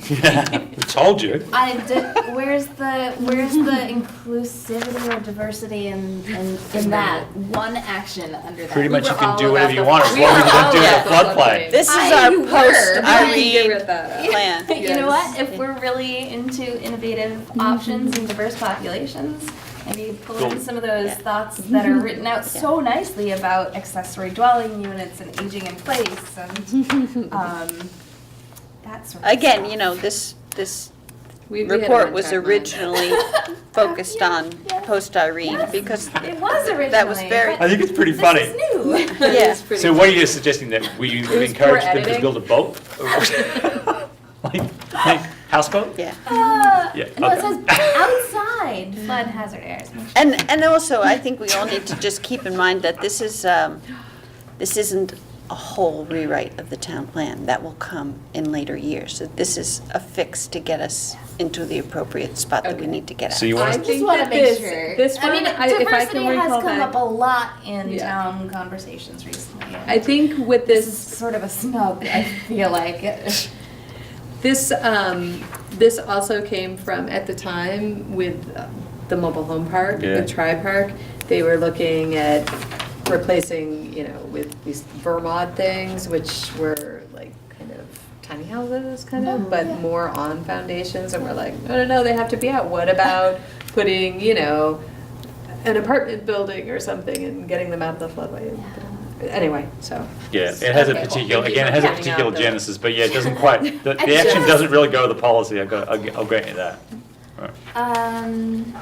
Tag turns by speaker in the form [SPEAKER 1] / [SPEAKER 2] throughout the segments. [SPEAKER 1] Yeah, I told you.
[SPEAKER 2] I d- where's the where's the inclusivity or diversity in in, in that one action under that?
[SPEAKER 1] Pretty
[SPEAKER 2] We
[SPEAKER 1] much you
[SPEAKER 2] were
[SPEAKER 1] can
[SPEAKER 2] all
[SPEAKER 1] do
[SPEAKER 2] about
[SPEAKER 1] whatever
[SPEAKER 2] the-
[SPEAKER 1] you want, as
[SPEAKER 2] we
[SPEAKER 1] long
[SPEAKER 2] were
[SPEAKER 1] as you don't
[SPEAKER 2] all
[SPEAKER 1] do
[SPEAKER 2] about-
[SPEAKER 1] it in a floodplain.
[SPEAKER 3] This is
[SPEAKER 2] I-
[SPEAKER 3] our
[SPEAKER 2] you were,
[SPEAKER 3] post
[SPEAKER 2] right.
[SPEAKER 3] Irene plan.
[SPEAKER 2] You know what? If we're really into innovative
[SPEAKER 3] Mm-hmm.
[SPEAKER 2] options and diverse populations, maybe pull in
[SPEAKER 1] Cool.
[SPEAKER 2] some of those
[SPEAKER 3] Yeah. Mm-hmm.
[SPEAKER 2] thoughts that are written out so nicely about accessory dwelling units and aging in place and um, that sort of
[SPEAKER 3] Again,
[SPEAKER 2] stuff.
[SPEAKER 3] you know, this, this
[SPEAKER 4] We- we had a
[SPEAKER 3] report was
[SPEAKER 4] one-time
[SPEAKER 3] originally focused on
[SPEAKER 2] yeah.
[SPEAKER 3] post Irene
[SPEAKER 2] Yes.
[SPEAKER 3] because,
[SPEAKER 2] it was originally
[SPEAKER 3] that was very-
[SPEAKER 2] but
[SPEAKER 1] I think it's pretty
[SPEAKER 2] this
[SPEAKER 1] funny.
[SPEAKER 2] is new.
[SPEAKER 4] It
[SPEAKER 3] Yeah.
[SPEAKER 4] was pretty-
[SPEAKER 1] So what are you suggesting, that we
[SPEAKER 4] poor
[SPEAKER 1] encourage them to
[SPEAKER 4] editing.
[SPEAKER 1] build a boat? Like, like houseboat?
[SPEAKER 3] yeah.
[SPEAKER 2] Uh,
[SPEAKER 1] Yeah,
[SPEAKER 2] No, it
[SPEAKER 1] okay.
[SPEAKER 2] says outside flood hazard areas.
[SPEAKER 3] And, and also, I think we all need to just keep in mind that this is, um, this isn't a whole rewrite of the town plan. That will come in later years. So This is a fix to get us into the appropriate spot that we need to get
[SPEAKER 1] So
[SPEAKER 3] at.
[SPEAKER 1] you
[SPEAKER 4] I
[SPEAKER 1] want us,
[SPEAKER 2] Just
[SPEAKER 4] think
[SPEAKER 2] want to
[SPEAKER 4] that
[SPEAKER 2] make
[SPEAKER 4] this,
[SPEAKER 2] sure.
[SPEAKER 4] this
[SPEAKER 2] I mean,
[SPEAKER 4] one, I- if I
[SPEAKER 2] diversity
[SPEAKER 4] can
[SPEAKER 2] has
[SPEAKER 4] recall
[SPEAKER 2] come up a
[SPEAKER 4] back.
[SPEAKER 2] lot in
[SPEAKER 4] Yeah.
[SPEAKER 2] town conversations recently.
[SPEAKER 4] I think with
[SPEAKER 2] this is
[SPEAKER 4] this,
[SPEAKER 2] sort of a snub. I feel like.
[SPEAKER 4] this, um, this also came from, at the time, with uh, the mobile home park,
[SPEAKER 1] Yeah.
[SPEAKER 4] with Tri Park, they were looking at replacing, you know, with these Vermont things, which were like kind of tiny houses, kind
[SPEAKER 2] Oh,
[SPEAKER 4] of, but
[SPEAKER 2] yeah.
[SPEAKER 4] more on foundations, and we're like, no, no, no, they have to be out. What about putting, you know, an apartment building or something and getting them out of the floodway? Anyway, so.
[SPEAKER 1] yeah, it has a
[SPEAKER 4] Okay, well,
[SPEAKER 1] particular,
[SPEAKER 4] thank you
[SPEAKER 1] again, it
[SPEAKER 4] for
[SPEAKER 1] has a
[SPEAKER 4] pointing out
[SPEAKER 1] particular
[SPEAKER 4] the-
[SPEAKER 1] genesis, but yeah, it doesn't quite, the,
[SPEAKER 2] I
[SPEAKER 1] the action
[SPEAKER 2] just-
[SPEAKER 1] doesn't really go with the policy, I'll go, I'll, I'll grant you that. All right.
[SPEAKER 2] Um,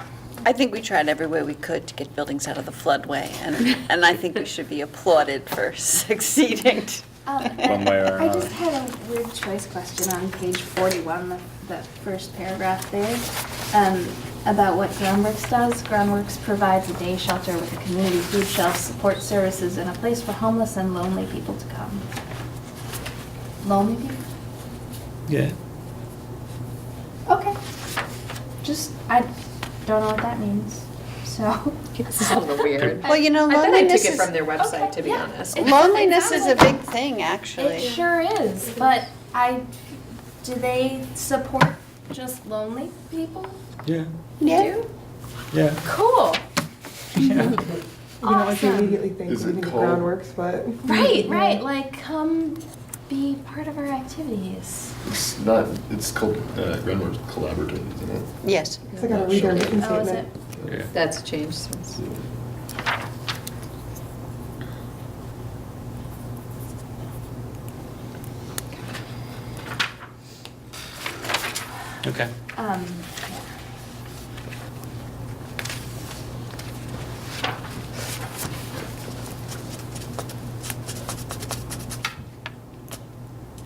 [SPEAKER 3] I think we tried every way we could to get buildings out of the floodway, and, and I think we should be applauded for succeeding.
[SPEAKER 2] um,
[SPEAKER 1] One way or
[SPEAKER 2] I just
[SPEAKER 1] another.
[SPEAKER 2] had a weird choice question on page 41, the, the first paragraph there, um, about what Groundworks does. Groundworks provides a day shelter with a community food shelf, support services, and a place for homeless and lonely people to come. Lonely people?
[SPEAKER 1] Yeah.
[SPEAKER 2] Okay. Just, I don't know what that means, so.
[SPEAKER 4] This is a little weird.
[SPEAKER 3] Well, you know,
[SPEAKER 4] I thought I took
[SPEAKER 3] loneliness
[SPEAKER 4] it
[SPEAKER 3] is,
[SPEAKER 4] from their website, to be
[SPEAKER 2] yeah.
[SPEAKER 4] honest.
[SPEAKER 2] It-
[SPEAKER 3] loneliness is a
[SPEAKER 2] sounds like-
[SPEAKER 3] big thing, actually.
[SPEAKER 2] It sure is, but I, do they support just lonely people?
[SPEAKER 1] Yeah,
[SPEAKER 3] Yeah.
[SPEAKER 1] yeah.
[SPEAKER 2] Cool.
[SPEAKER 5] You know, like you
[SPEAKER 2] Awesome.
[SPEAKER 5] immediately think
[SPEAKER 6] Is
[SPEAKER 5] leaving
[SPEAKER 6] it
[SPEAKER 5] the
[SPEAKER 6] cold?
[SPEAKER 5] groundworks, but.
[SPEAKER 2] Right, right, like come be part of our activities.
[SPEAKER 6] It's not, it's called, uh, Groundworks Collaborative, isn't it?
[SPEAKER 3] Yes.
[SPEAKER 5] It's like a read their mission
[SPEAKER 2] Oh, is it?
[SPEAKER 5] statement.
[SPEAKER 1] Yeah.
[SPEAKER 4] That's changed since.
[SPEAKER 1] Okay.
[SPEAKER 2] Um,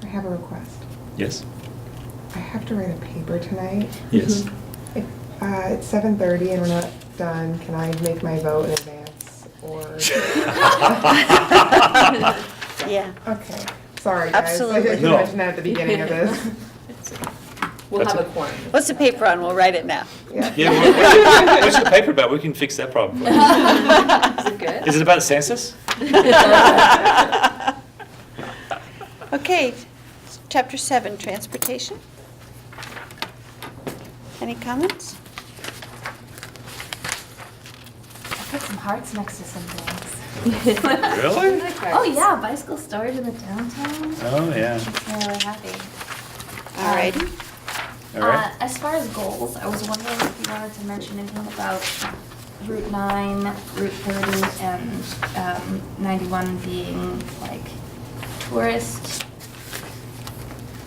[SPEAKER 5] I have a request.
[SPEAKER 1] Yes.
[SPEAKER 5] I have to write a paper tonight.
[SPEAKER 2] Mm-hmm.
[SPEAKER 1] Yes.
[SPEAKER 5] If, uh, it's seven thirty and we're not done, can I make my vote in advance or?
[SPEAKER 3] Yeah.
[SPEAKER 5] Okay, sorry guys. I
[SPEAKER 3] Absolutely.
[SPEAKER 5] should
[SPEAKER 1] No.
[SPEAKER 5] mention that at the beginning of this.
[SPEAKER 4] We'll
[SPEAKER 1] That's
[SPEAKER 4] have a
[SPEAKER 1] it.
[SPEAKER 4] quorum.
[SPEAKER 3] What's the paper on? We'll write it now.
[SPEAKER 1] Yeah, what- what's your- what's your paper about? We can fix that problem. for you.
[SPEAKER 4] Is it good?
[SPEAKER 1] Is it about census?
[SPEAKER 3] Okay, chapter seven, transportation. Any comments?
[SPEAKER 2] I put some hearts next to some things.
[SPEAKER 1] Really?
[SPEAKER 2] Oh, yeah, bicycle storage in the downtown.
[SPEAKER 1] Oh, yeah.
[SPEAKER 2] Makes me really happy. Um,
[SPEAKER 3] All righty.
[SPEAKER 1] All
[SPEAKER 2] Uh,
[SPEAKER 1] right.
[SPEAKER 2] as far as goals, I was wondering if you wanted to mention anything about Route nine, Route thirty, and, um, ninety-one being like tourist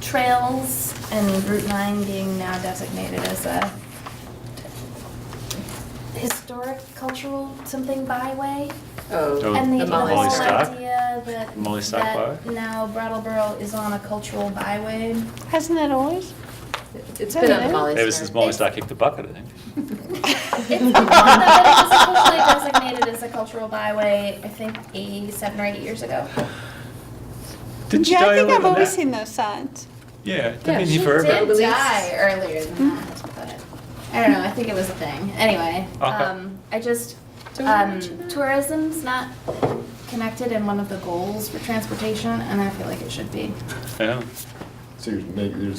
[SPEAKER 2] trails, and Route nine being now designated as a historic cultural something byway.
[SPEAKER 1] Oh.
[SPEAKER 4] Oh,
[SPEAKER 2] And the
[SPEAKER 4] the
[SPEAKER 2] the
[SPEAKER 4] Molly
[SPEAKER 2] whole
[SPEAKER 1] Stock?
[SPEAKER 2] idea that,
[SPEAKER 1] Molly Stock
[SPEAKER 2] that
[SPEAKER 1] Byway?
[SPEAKER 2] now Brattleboro is on a cultural byway.
[SPEAKER 3] Hasn't that always?
[SPEAKER 4] it's been on the Molly
[SPEAKER 1] Ever since
[SPEAKER 4] Star.
[SPEAKER 1] Molly Starr kicked the bucket, I think.
[SPEAKER 2] It's no, but it was officially designated as a cultural byway, I think, eight, seven or eight years ago.
[SPEAKER 1] Didn't
[SPEAKER 3] Yeah, I think I've always seen those signs.
[SPEAKER 1] Yeah, they've
[SPEAKER 4] Yeah,
[SPEAKER 1] been
[SPEAKER 4] she
[SPEAKER 1] here forever.
[SPEAKER 4] did.
[SPEAKER 2] Did
[SPEAKER 4] Release.
[SPEAKER 2] die earlier than that, but I don't know, I think it was a thing. Anyway,
[SPEAKER 1] Okay.
[SPEAKER 2] um, I just,
[SPEAKER 4] Do we
[SPEAKER 2] um,
[SPEAKER 4] mention that?
[SPEAKER 2] tourism's not connected in one of the goals for transportation, and I feel like it should be.
[SPEAKER 1] Yeah.
[SPEAKER 6] So you're, neg- you're